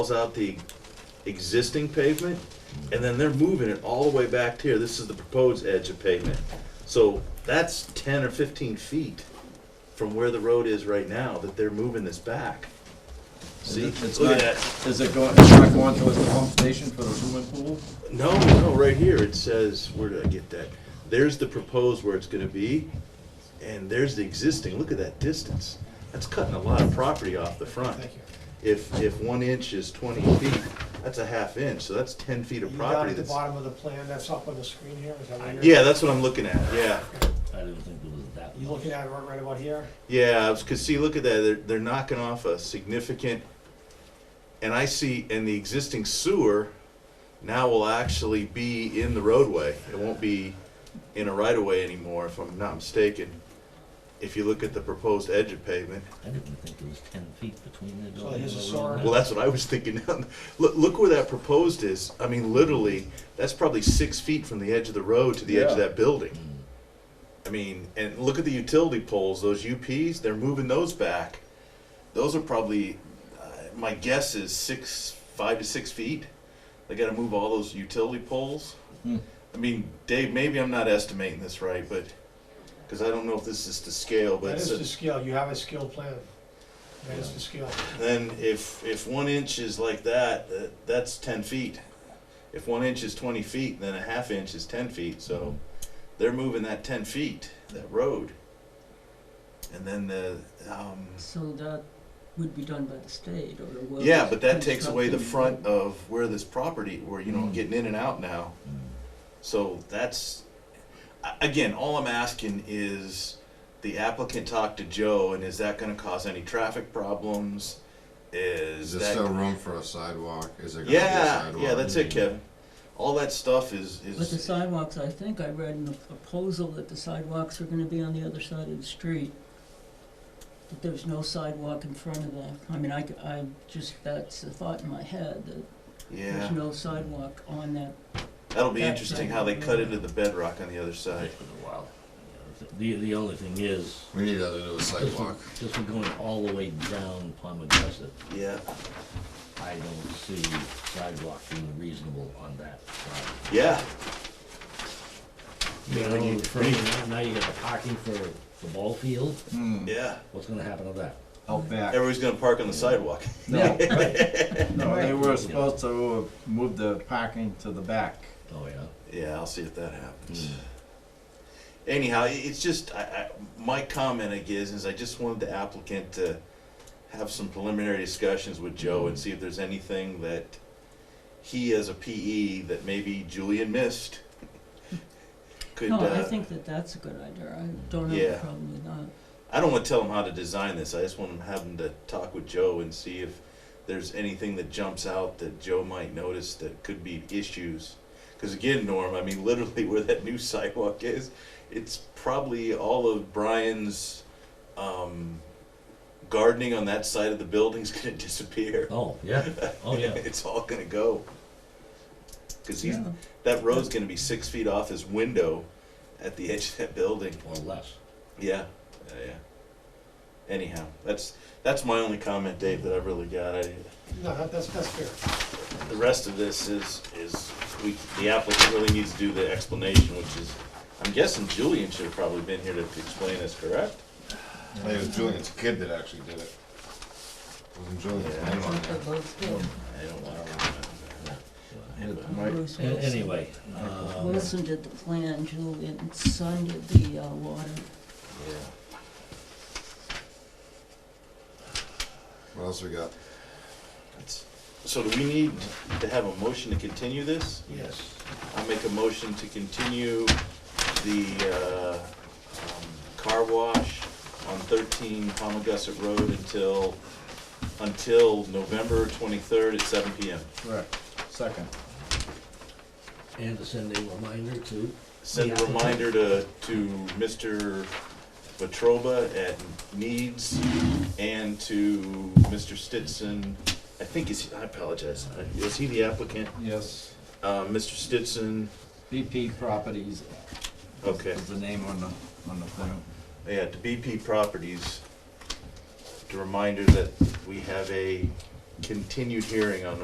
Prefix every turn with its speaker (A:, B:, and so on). A: calls out the existing pavement, and then they're moving it all the way back to here, this is the proposed edge of pavement. So that's ten or fifteen feet from where the road is right now, that they're moving this back. See,
B: It's
A: look at
B: not,
A: that,
B: is it going, it's not going towards the pump station for the swimming pool?
A: no, no, right here, it says, where did I get that? There's the proposed where it's gonna be, and there's the existing, look at that distance. That's cutting a lot of property off the front. If, if one inch is twenty feet, that's a half inch, so that's ten feet of
C: You got
A: property
C: at the
A: that's.
C: bottom of the plan, that's up on the screen here, is that what you're?
A: Yeah, that's what I'm looking at, yeah.
D: I didn't think it was that
C: You
D: much.
C: looking at it right about here?
A: Yeah, I was, cause see, look at that, they're, they're knocking off a significant, and I see, and the existing sewer now will actually be in the roadway. It won't be in a right of way anymore, if I'm not mistaken. If you look at the proposed edge of pavement,
D: I didn't think it was ten feet between the
C: So
D: building.
C: here's a
D: and the road.
A: well, that's what I was thinking. Look, look where that proposed is, I mean, literally, that's probably six feet from the edge of the road to the edge of
B: Yeah.
A: that building. I mean, and look at the utility poles, those UPs, they're moving those back. Those are probably, uh, my guess is six, five to six feet. They gotta move all those utility poles.
B: Hmm.
A: I mean, Dave, maybe I'm not estimating this right, but, cause I don't know if this is to scale, but
C: That
A: it's
C: is
A: a-
C: the scale, you have a scale plan. That is the scale.
A: then if, if one inch is like that, that, that's ten feet. If one inch is twenty feet, then a half inch is ten feet, so they're moving that ten feet, that road. And then the, um,
E: So that would be done by the state or the world.
A: yeah, but that takes away the front of where this property, where, you know, getting in and out now. So that's, a- again, all I'm asking is the applicant talk to Joe, and is that gonna cause any traffic problems? Is
F: Is
A: that?
F: there still room for a sidewalk? Is there gonna be a
A: Yeah,
F: sidewalk?
A: yeah, that's it, Kevin. All that stuff is,
E: But the
A: is,
E: sidewalks, I think I read in the proposal that the sidewalks are gonna be on the other side of the street. That there's no sidewalk in front of that. I mean, I, c- I just, that's a thought in my head, that
A: yeah,
E: there's no sidewalk on that.
A: that'll be
E: That's
A: interesting
E: right.
A: how they cut into the bedrock on the other
D: It
A: side.
D: was a while. The, the only thing is,
F: We need to do a
D: this
F: sidewalk.
D: is, this is going all the way down Palmagussit.
A: Yeah,
D: I don't see sidewalk being reasonable on that side.
A: yeah,
D: You
A: when you-
D: know, for- now you got the parking for the ball field,
B: Hmm,
A: yeah.
D: what's gonna happen to that?
B: out back.
A: Everybody's gonna park on the sidewalk.
B: No,
D: Right.
B: no, they were supposed to move the parking to the back.
D: Oh, yeah.
A: Yeah, I'll see if that happens.
D: Mm.
A: Anyhow, i- it's just, I, I, my comment, I guess, is I just wanted the applicant to have some preliminary discussions with Joe and see if there's anything that he as a PE that maybe Julian missed. Could,
E: No, I
A: uh,
E: think that that's a good idea. I don't have a
A: yeah.
E: problem with that.
A: I don't want to tell him how to design this. I just want him to have him to talk with Joe and see if there's anything that jumps out that Joe might notice that could be issues. Because again, Norm, I mean, literally where that new sidewalk is, it's probably all of Brian's um, gardening on that side of the building's going to disappear.
D: Oh, yeah, oh, yeah.
A: it's all going to go. Because he's
E: Yeah.
A: that road's going to be six feet off his window at the edge of that building.
D: Or less.
A: Yeah, yeah, yeah. Anyhow, that's that's my only comment, Dave, that I really got. I,
C: No, that- that's, that's fair.
A: the rest of this is is we the applicant really needs to do the explanation, which is I'm guessing Julian should have probably been here to explain this, correct?
F: I think it was Julian's kid that actually did it. It wasn't Julian's
A: Yeah.
F: name on it.
A: I don't want to comment on that.
B: Right.
E: Bruce
D: An-
E: Wilson.
D: Anyway, um,
E: Wilson did the plan, Julian, son did the, uh, water.
A: Yeah.
F: What else we got?
A: That's, so do we need to have a motion to continue this?
D: yes.
A: I'll make a motion to continue the uh, um, car wash on 13 Palmagussit Road until, until November 23rd at 7 PM.
B: Correct, second.
D: And to send a reminder to,
A: Send a
D: Yeah.
A: reminder to, to Mr. Petroba at Needs and to Mr. Stinson. I think is, I apologize, is he the applicant?
B: Yes,
A: Uh, Mr. Stinson,
B: BP Properties
A: okay.
B: is the name on the, on the thing.
A: Yeah, to BP Properties, the reminder that we have a continued hearing on